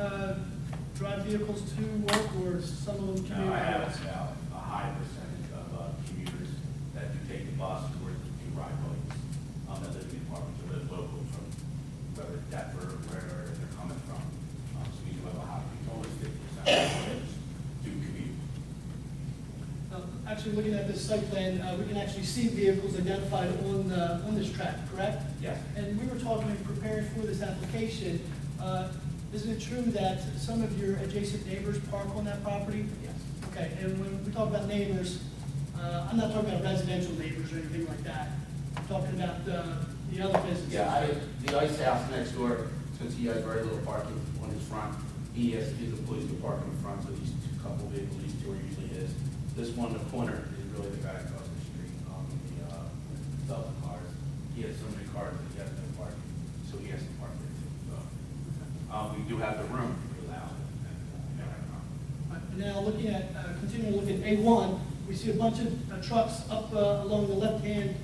Uh, vehicles to work, or some of them Now, I commute have routes? about a high percentage of uh, commuters that do take the bus or do ride bikes. Um, that live in apartments or live local from whether Denver, or wherever they're coming from. Um, so we do have a high, always fifty percent of commuters do commute. Uh, Actually, looking at this site plan, uh, we can actually see vehicles identified on, uh, on this track, correct? Yes. And we were talking, and preparing for this application, uh, isn't it true that some of your adjacent neighbors park on that property? Yes. Okay, and when we talk about neighbors, uh, I'm not talking about residential neighbors or anything like that. I'm talking about uh, the other businesses. Yeah, I, the ice house next door, since he has very little parking on his front, he has to get the police to park in front, so these two couple vehicles, these two are usually his. This one, in the corner, is really the guy across the street, um, the, uh, selling cars. He has so many cars that he has no parking, so he has to park there too, so. Uh, we do have the room to allow, it, and, uh, we don't have a problem. Now, looking at, uh, continuing to look at A1, we see a bunch of uh, trucks up uh, along the left-hand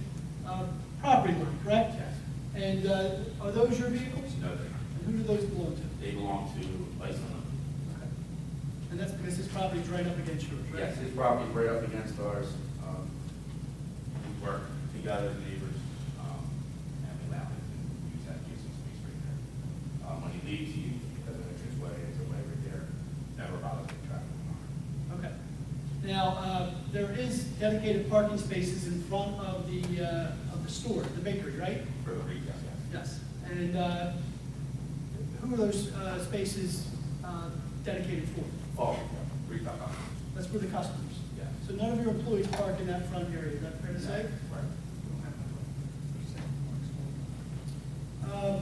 uh, property line, correct? Yes. And uh, are those your vehicles? So no, they- And who do those belong to? they belong to Iceland. And that's because this property's right up against yours, right? Yes, his property right up against ours, um, We work together, neighbors, um, and we allow him to use that kitchen space right there. Um, when he leaves, he has an entrance way, it's a way right there, never bothers the traffic. Okay. Now, uh, there is dedicated parking spaces in front of the, uh, of the store, the bakery, right? For the retail, yes. Yes. And uh, who are those uh, spaces uh, dedicated for? Oh, retail, customers, That's for the customers. yes. So none of your employees park in that front area, is that fair to say? Right. We don't have that. Uh,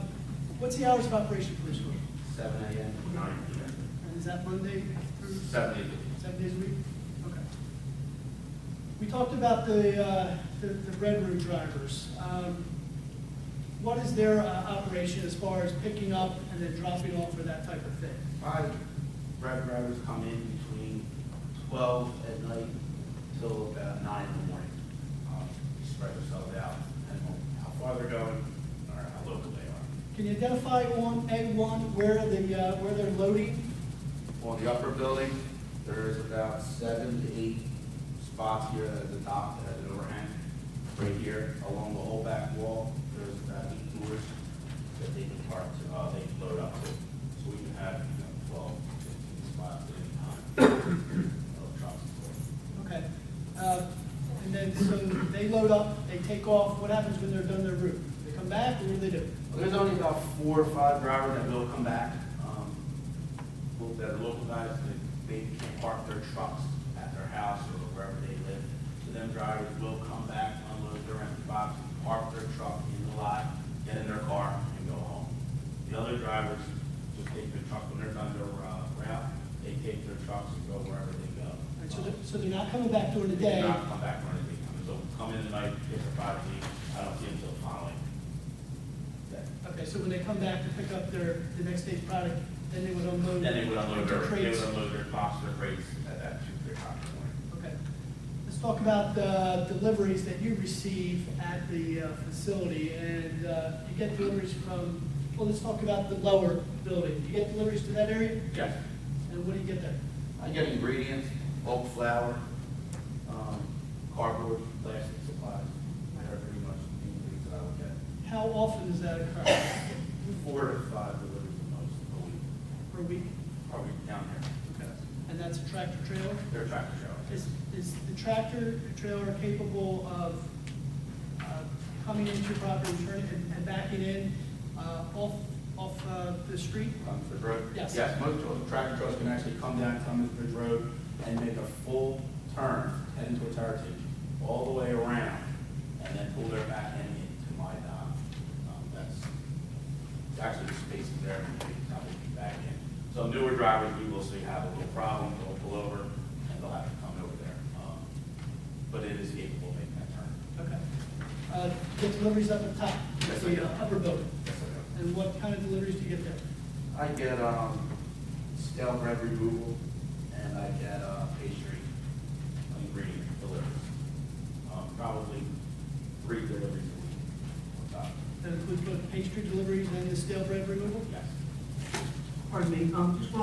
What's the hours of operation for this store? seven AM. Nine, yeah. And is that Monday through Seven, eight. seven days a week? Okay. We talked about the, uh, the the Red Room drivers. Um, What is their uh, operation as far as picking up and then dropping off or that type of thing? Five grab drivers come in between twelve at night till about nine in the morning. Um, we spread ourselves out, and how far they're going, or how local they are. Can you identify on A1 where the, uh, where they're loading? On the upper building, there's about seven to eight spots here at the top that has an overhang. Right here, along the whole back wall, there's about eight doors that they can park, to- uh, they can load up to. So we can have, you know, twelve, fifteen spots at any time. of trucks. Okay. Uh, And then, so they load up, they take off, what happens when they're done their route? They come back, or what do they do? Well, There's only about four or five drivers that will come back, um, well, that are local guys, they, they can park their trucks at their house or wherever they live. So them drivers will come back, unload their empty box, park their truck in the lot, get in their car and go home. The other drivers just take their truck, when they're done their, uh, route, they take their trucks and go wherever they go. Um, All right, So they're, so they're not coming back during the They do day? not come back or anything, so come in tonight, get their property, I don't see them till following. day. Okay, so when they come back to pick up their, the next day's product, then they would unload? Then they would unload their, their they would crates? unload their box, their crates at that two, three o'clock in the morning. Okay. Let's talk about the deliveries that you receive at the uh, facility, and uh, you get deliveries from, well, let's talk about the lower building. You get deliveries to that area, Yes, and what do you get there? I get ingredients, bulk flour, um, cardboard, plastic supplies, that are pretty much the ingredients that I would get. How often does that occur Four to five deliveries the most a week. per week? are we down here? And that's a tractor trailer? They're tractor trailers. Is, is the tractor trailer capable of uh, coming into property, turning and- and backing in uh, off, off uh, the street? Comes Bridge Road? Yes. Yes, most tra- tractor trailers can actually come down Cummins Bridge Road and make a full turn, heading towards Heritage, all the way around, and then pull their back end into my dock. Um, That's actually the space is there, and they can probably be back in. So newer drivers, we will see have a little problem, they'll pull over, and they'll have to come over there. Um, But it is capable of making that turn. Okay. Uh, Get deliveries up at the top, Yes, sir. the uh, upper building, Yes, I know. and what kind of deliveries do you get there? I get, um, stale bread removal, and I get, uh, pastry ingredient deliveries. Um, probably three deliveries a week on top. That includes both pastry deliveries and the stale bread removal? Yes. Pardon me, um, just one